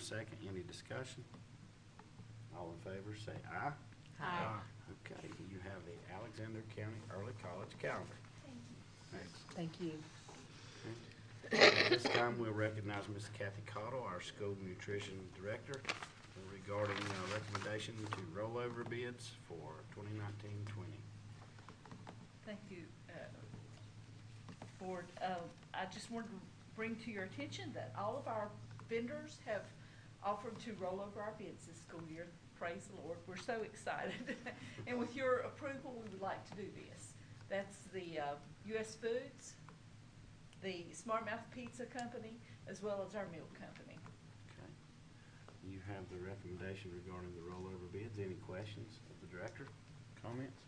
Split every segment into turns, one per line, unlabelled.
second. Any discussion? All in favor, say aye.
Aye.
Okay, you have the Alexander County Early College Calendar. Next.
Thank you.
At this time, we'll recognize Ms. Kathy Cottle, our school nutrition director, regarding uh, recommendation to roll over bids for 2019-20.
Thank you, uh, Board. Uh, I just wanted to bring to your attention that all of our vendors have offered to roll over our bids this school year. Praise the Lord, we're so excited. And with your approval, we would like to do this. That's the uh, US Foods, the Smart Mouth Pizza Company, as well as our milk company.
Okay. You have the recommendation regarding the rollover bids. Any questions of the director? Comments?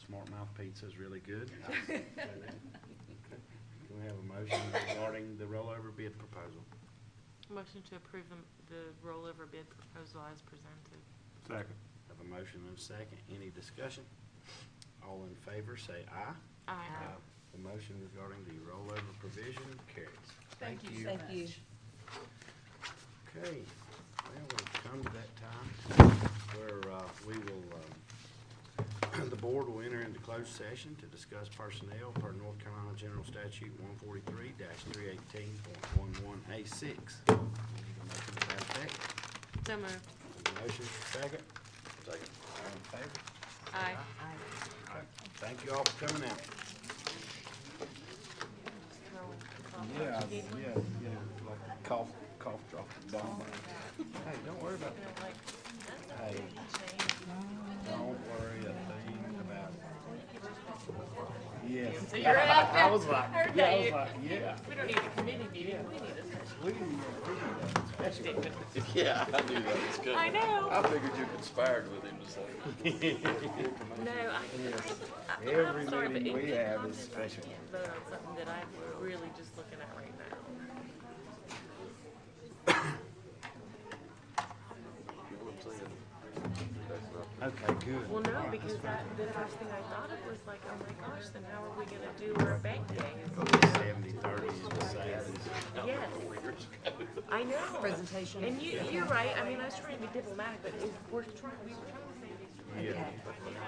Smart Mouth Pizza's really good. I say that. Okay. Can we have a motion regarding the rollover bid proposal?
Motion to approve the- the rollover bid proposal as presented.
Second.
Have a motion and a second. Any discussion? All in favor, say aye.
Aye.
The motion regarding the rollover provision carries.
Thank you so much.
Thank you.
Okay, well, we've come to that time where uh, we will, um, the board will enter into closed session to discuss personnel per North Carolina General Statute one forty-three three eighteen point one one A six. Motion to that effect.
So moved.
Motion, second? Second. All in favor?
Aye.
Okay. Thank you all for coming out. Yeah, yeah, yeah, like the cough, cough drop, down. Hey, don't worry about that. Hey, don't worry a thing about it. Yes.
So you're out
I was like,
Heard
yeah, I
that
was
you-
like, yeah.
We don't need a committee meeting, we need a.
We didn't even approve
Yeah, I knew that was good.
I know.
I figured you conspired with him, just like.
No, I,
that.
I-
Every
I'm sorry, but
meeting we
in
have is
comments, I
special.
can't vote on something that I'm really just looking at right now.
Okay, good.
Well, no, because that, the first thing I thought of was like, oh my gosh, then how are we gonna do our bank day?
Seventy, thirty is the same.
Yes, I know.
Presentation.
And you, you're right, I mean, I was trying to be diplomatic, but it- we're trying, we were trying to say these.
Yeah.